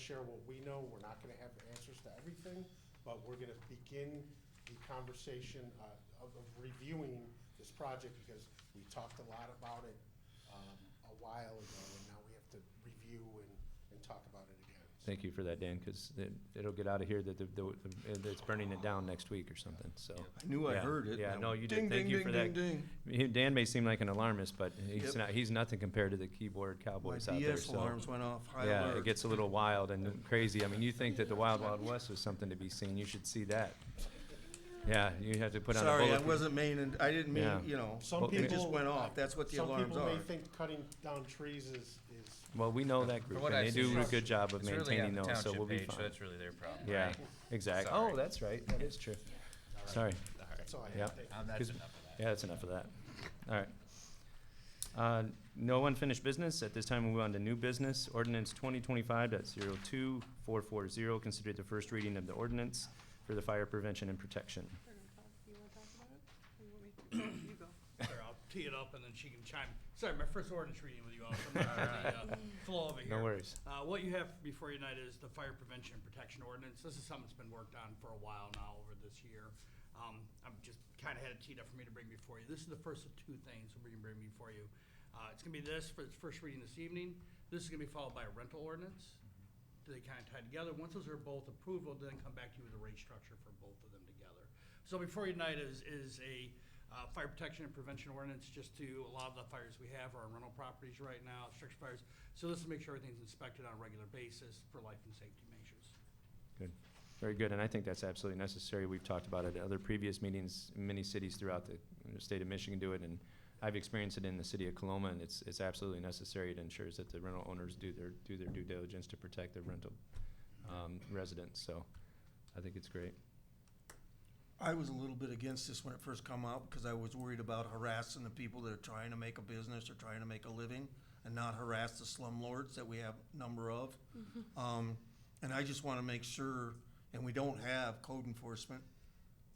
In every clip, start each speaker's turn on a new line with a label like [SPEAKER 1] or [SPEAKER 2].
[SPEAKER 1] share what we know. We're not gonna have answers to everything, but we're gonna begin the conversation uh, of of reviewing this project because we talked a lot about it um, a while ago, and now we have to review and, and talk about it again. So,
[SPEAKER 2] Thank you for that, Dan, because it'll get out of here that the- the- the- it's burning it down next week or something, so.
[SPEAKER 3] I knew I
[SPEAKER 2] Yeah,
[SPEAKER 3] heard it.
[SPEAKER 2] Yeah,
[SPEAKER 3] Now,
[SPEAKER 2] no, you
[SPEAKER 3] ding,
[SPEAKER 2] did. Thank
[SPEAKER 3] ding,
[SPEAKER 2] you for
[SPEAKER 3] ding,
[SPEAKER 2] that.
[SPEAKER 3] ding,
[SPEAKER 2] He- Dan may seem like an alarmist, but he's
[SPEAKER 3] Yep.
[SPEAKER 2] not, he's nothing compared to the keyboard
[SPEAKER 3] ding. My
[SPEAKER 2] cowboys out there,
[SPEAKER 3] DS
[SPEAKER 2] so.
[SPEAKER 3] alarms went off, high
[SPEAKER 2] Yeah, it
[SPEAKER 3] alert.
[SPEAKER 2] gets a little wild and crazy. I mean, you think that the Wild Wild West was something to be seen, you should see that. Yeah, you have to put on a
[SPEAKER 3] Sorry, I
[SPEAKER 2] bulletproof.
[SPEAKER 3] wasn't meaning, I didn't mean,
[SPEAKER 2] Yeah.
[SPEAKER 3] you know,
[SPEAKER 1] Some
[SPEAKER 2] Well,
[SPEAKER 1] people.
[SPEAKER 2] it
[SPEAKER 3] just went off. That's what the alarms
[SPEAKER 1] Some people
[SPEAKER 3] are.
[SPEAKER 1] may think cutting down trees is, is
[SPEAKER 2] Well, we know that group,
[SPEAKER 4] what
[SPEAKER 2] and they
[SPEAKER 4] I've seen,
[SPEAKER 2] do a
[SPEAKER 4] it's-
[SPEAKER 2] good job of
[SPEAKER 4] It's really on
[SPEAKER 2] maintaining
[SPEAKER 4] the
[SPEAKER 2] those, so
[SPEAKER 4] township
[SPEAKER 2] we'll be
[SPEAKER 4] page, so
[SPEAKER 2] fine.
[SPEAKER 4] that's really their problem,
[SPEAKER 2] Yeah,
[SPEAKER 4] right?
[SPEAKER 2] exactly.
[SPEAKER 4] Sorry.
[SPEAKER 2] Oh, that's right, that is true. Sorry.
[SPEAKER 1] That's all I
[SPEAKER 2] Yeah.
[SPEAKER 1] have. Thank you.
[SPEAKER 4] Um, that's
[SPEAKER 2] Cause-
[SPEAKER 4] enough of that.
[SPEAKER 2] Yeah, that's enough of that. All right. Uh, No unfinished business. At this time, we move on to new business. Ordinance 2025.02440, considered the first reading of the ordinance for the fire prevention and protection.
[SPEAKER 5] We're gonna talk, uh, you wanna talk about it? Or you want me to? No, You go.
[SPEAKER 6] Sure, I'll tee it up and then she can chime. Sorry, my first ordinance reading with you all, so I'm not on the uh, flow over here.
[SPEAKER 2] No worries.
[SPEAKER 6] Uh, what you have before you tonight is the fire prevention and protection ordinance. This is something that's been worked on for a while now over this year. Um, I've just kind of had it teed up for me to bring before you. This is the first of two things we're gonna bring before you. Uh, it's gonna be this for its first reading this evening. This is gonna be followed by a rental ordinance. Do they kind of tie together? Once those are both approved, we'll then come back to you with a rate structure for both of them together. So before you tonight is, is a, uh, fire protection and prevention ordinance, just to, a lot of the fires we have are on rental properties right now, structure fires. So this is to make sure everything's inspected on a regular basis for life and safety measures.
[SPEAKER 2] Good. Very good, and I think that's absolutely necessary. We've talked about it at other previous meetings. Many cities throughout the uh, state of Michigan do it, and I've experienced it in the city of Coloma, and it's, it's absolutely necessary. It ensures that the rental owners do their, do their due diligence to protect their rental um, residents, so I think it's great.
[SPEAKER 3] I was a little bit against this when it first come out because I was worried about harassing the people that are trying to make a business or trying to make a living and not harass the slumlords that we have number of. Um, and I just want to make sure, and we don't have code enforcement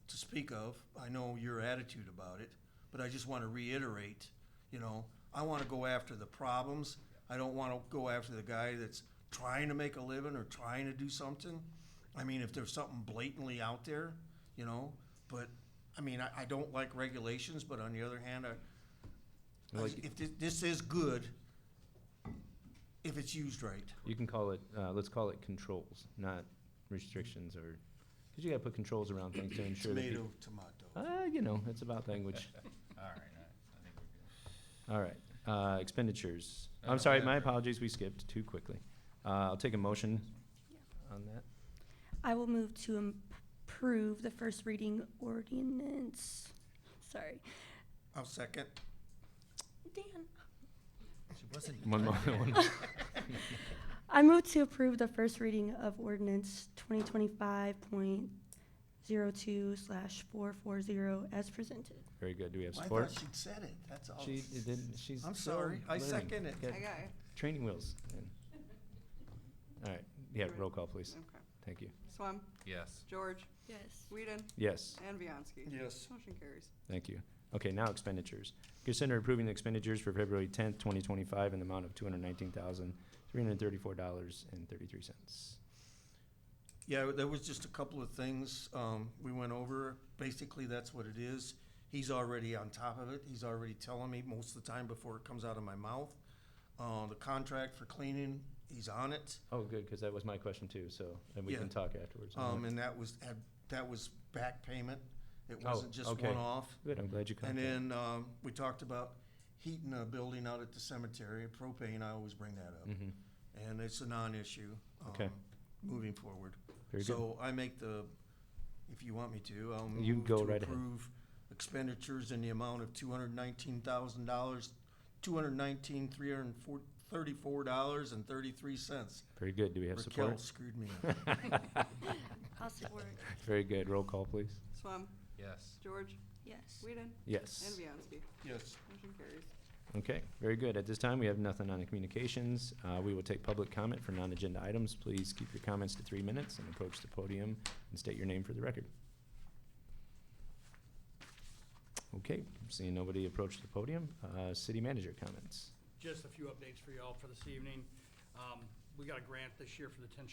[SPEAKER 3] to speak of. I know your attitude about it, but I just want to reiterate, you know, I want to go after the problems. I don't want to go after the guy that's trying to make a living or trying to do something. I mean, if there's something blatantly out there, you know, but I mean, I, I don't like regulations, but on the other hand, I, I-
[SPEAKER 2] Like-
[SPEAKER 3] if thi- this is good, if it's used right.
[SPEAKER 2] You can call it, uh, let's call it controls, not restrictions or, because you gotta put controls around things to ensure that. peop-
[SPEAKER 3] Tomato, tomato.
[SPEAKER 2] Uh, you know, it's about language.
[SPEAKER 4] All right, all right, I think we're good.
[SPEAKER 2] All right, uh, expenditures.
[SPEAKER 4] No,
[SPEAKER 2] I'm
[SPEAKER 4] no,
[SPEAKER 2] sorry, my
[SPEAKER 4] whatever.
[SPEAKER 2] apologies, we skipped too quickly. Uh, I'll take a motion on that.
[SPEAKER 7] I will move to im- approve the first reading ordinance. Sorry.
[SPEAKER 3] I'll second.
[SPEAKER 7] Dan.
[SPEAKER 4] She wasn't.
[SPEAKER 2] One more, one more.
[SPEAKER 7] I move to approve the first reading of ordinance twenty twenty-five point zero two slash four four zero as presented.
[SPEAKER 2] Very good, do we have
[SPEAKER 3] I
[SPEAKER 2] support?
[SPEAKER 3] thought she said it, that's all.
[SPEAKER 2] She didn't, she's.
[SPEAKER 3] I'm
[SPEAKER 2] still
[SPEAKER 3] sorry, I
[SPEAKER 2] learning.
[SPEAKER 3] second it.
[SPEAKER 2] Got
[SPEAKER 5] I got it,
[SPEAKER 2] Training wheels. and- All right, yeah,
[SPEAKER 5] Right.
[SPEAKER 2] roll call, please.
[SPEAKER 5] okay.
[SPEAKER 2] Thank you.
[SPEAKER 5] Swam,
[SPEAKER 4] Yes.
[SPEAKER 5] George,
[SPEAKER 7] Yes.
[SPEAKER 5] Whedon,
[SPEAKER 2] Yes.
[SPEAKER 5] and Bianski.
[SPEAKER 3] Yes.
[SPEAKER 5] Motion carries.
[SPEAKER 2] Thank you. Okay, now expenditures. Consider approving the expenditures for February tenth, twenty twenty-five in the amount of two hundred nineteen thousand, three hundred thirty-four dollars and thirty-three cents.
[SPEAKER 3] Yeah, there was just a couple of things um, we went over. Basically, that's what it is. He's already on top of it. He's already telling me most of the time before it comes out of my mouth. Uh, The contract for cleaning, he's on it.
[SPEAKER 2] Oh, good, because that was my question too, so, and we
[SPEAKER 3] Yeah.
[SPEAKER 2] can talk afterwards. Uh-huh. on
[SPEAKER 3] Um,
[SPEAKER 2] that.
[SPEAKER 3] And that was, had- that was back payment. It wasn't just
[SPEAKER 2] Oh, okay.
[SPEAKER 3] one off.
[SPEAKER 2] Good, I'm glad you caught
[SPEAKER 3] And
[SPEAKER 2] that.
[SPEAKER 3] then um, we talked about heating a building out at the cemetery, propane, I always bring that up.
[SPEAKER 2] Mhm.
[SPEAKER 3] And it's a non-issue.
[SPEAKER 2] Okay.
[SPEAKER 3] um, Moving forward.
[SPEAKER 2] Very good.
[SPEAKER 3] So I make the, if you want me to, I'll
[SPEAKER 2] You
[SPEAKER 3] move
[SPEAKER 2] go
[SPEAKER 3] to
[SPEAKER 2] right ahead.
[SPEAKER 3] approve expenditures in the amount of two hundred nineteen thousand dollars, two hundred nineteen, three hundred and four, thirty-four dollars and thirty-three cents.
[SPEAKER 2] Very good, do we have
[SPEAKER 3] Raquel
[SPEAKER 2] support?
[SPEAKER 3] screwed me up.
[SPEAKER 7] I'll support.
[SPEAKER 2] Very good, roll call, please.
[SPEAKER 5] Swam,
[SPEAKER 4] Yes.
[SPEAKER 5] George,
[SPEAKER 7] Yes.
[SPEAKER 5] Whedon, and
[SPEAKER 2] Yes.
[SPEAKER 5] Bianski.
[SPEAKER 3] Yes.
[SPEAKER 5] Motion carries.
[SPEAKER 2] Okay, very good. At this time, we have nothing on the communications. Uh, We will take public comment for non-agenda items. Please keep your comments to three minutes and approach the podium and state your name for the record. Okay, seeing nobody approach the podium, uh, city manager comments.
[SPEAKER 6] Just a few updates for y'all for this evening. Um, we got a grant this year for the ten